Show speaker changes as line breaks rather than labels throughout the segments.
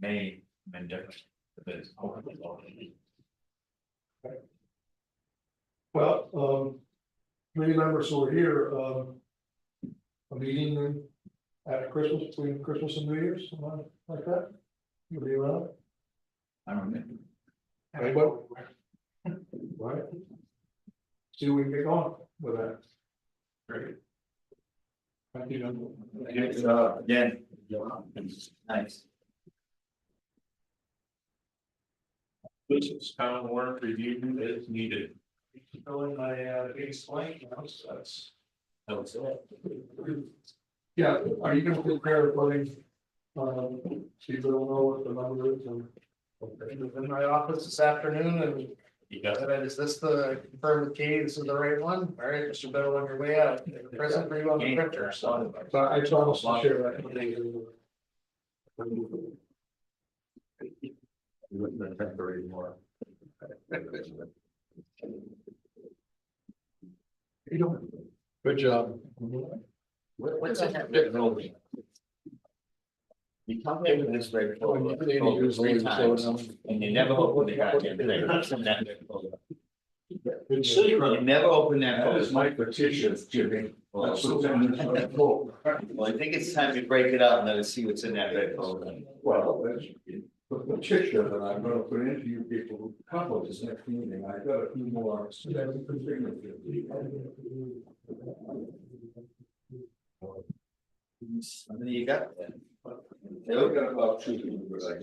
may been different. But it's hopefully all.
Well, um, committee members who are here, um. A meeting after Christmas, between Christmas and New Year's, something like that. You'll be around,
I don't know.
anybody? Right? See what we can get on with that.
Great.
Thank you.
Good
uh,
job, again. Nice.
Business town warrant review is needed.
Fill in my, uh, biggest blank, now, so that's.
That's it.
Yeah, are you gonna prepare a voting? Um, so you don't know what the number is and.
It was in my office this afternoon and
You got
I
it.
said, is this the confirm with Katie, this is the right one? All right, Mr. Bill, on your way out, present for you on the printer, so.
So I promise to share that. You don't. Good job.
What, what's that have written over? you? You come here with this very.
Oh, you did use
Three
words, so it's-
times, and you never open the goddamn thing.
Good job.
You never open that. folder.
petition, Jimmy.
Oh,
That's what I'm trying to pull.
Well, I think it's time to break it up and let us see what's in that red folder.
Well, that's the petition that I'm gonna put into you people, couple this next meeting, I got a few more.
Something you got there.
They've got about two.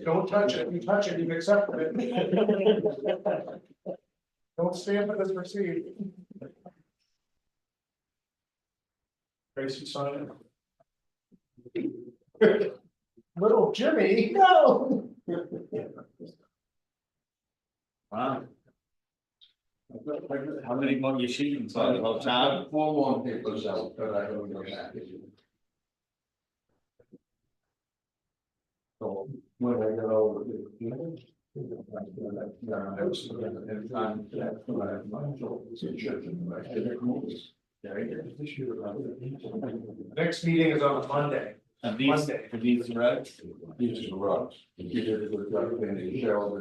Don't touch it, you touch it, you've accepted it. Don't stand for this receipt. Tracy sign it. Little Jimmy, no.
Wow. How many more you shooting for the whole town?
Four more papers out, but I don't know that. So when I get over the. you know, Yeah, I was. And time. that's when I have my children's children, I should have moved.
Very good.
This year, I would-
Next meeting is on Monday.
Of these,
Monday.
of these roads?
These are rocks. You did it with Doug and Cheryl.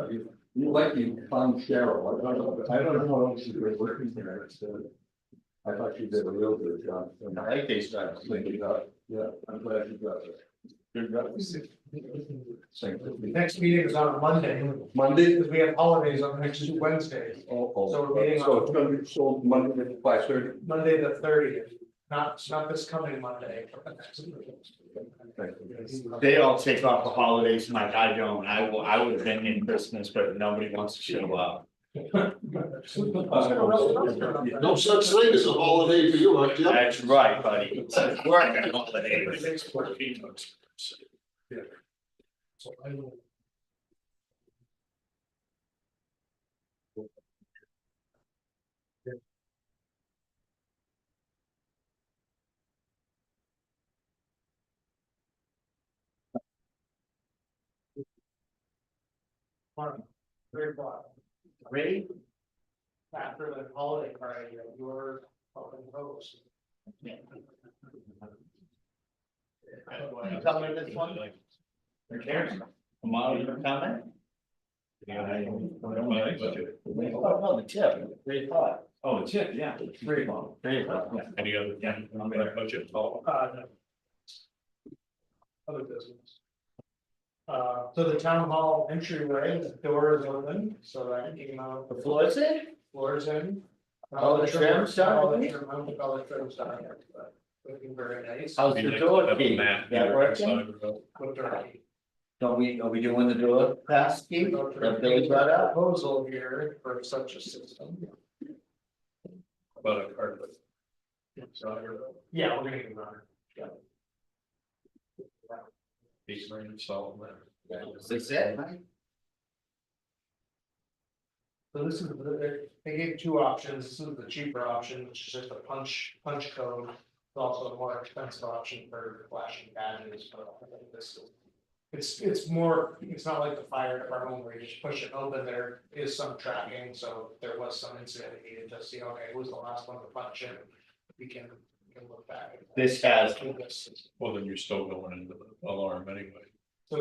and- you- You like you found Cheryl. I don't know, I don't know what else you were working there. so uh, I thought you did a real good job.
I like these roads.
Thank you, God. Yeah, I'm glad you got it.
Good roads.
Same thing.
Next meeting is on Monday.
Monday,
Because we have holidays on next two Wednesdays,
oh,
So
oh,
we're meeting on-
so it's gonna be sold Monday at five thirty.
Monday the thirtieth, not, not this coming Monday. but the next.
Thank you.
They all take off the holidays, Mike, I don't, I will, I would have been in Christmas, but nobody wants to show up.
No such thing as a holiday for you, huh, Jim?
That's right, buddy. It's Working all the day.
So I will.
Very broad,
Ready?
after the holiday party, your open host.
You coming to this one? Karen, come on, you coming? Oh, no, the tip, three o'clock.
Oh, it's it, yeah.
Three o'clock. Three o'clock. yeah.
Any other, yeah, I'm gonna budget. Oh,
Uh, no. Other business. Uh, so the town hall entryway, the door is open, so that you can, uh,
The floor is in?
floors in.
All the trims done?
All the trim, all the trims done, yeah, but looking very nice.
How's
maybe
the
I
door
have a
key?
map
That
here.
working?
Look dirty.
Don't we, are we doing the door pass key?
Look dirty.
That Billy brought up?
Proposal here for such a system.
About a carpet.
Yeah, we're gonna get it on.
These are installed there.
Is this it? Mike?
So this is, the- they gave two options, this is the cheaper option, which is just a punch, punch code. It's also a more expensive option for flashing badges, but I think this is. It's, it's more, it's not like the fire department where you just push it open, there is some tracking, so if there was some incident, you needed to see, okay, who's the last one to punch in? We can, we can look back.
This has
This is-
Well, then you're still going into the alarm anyway.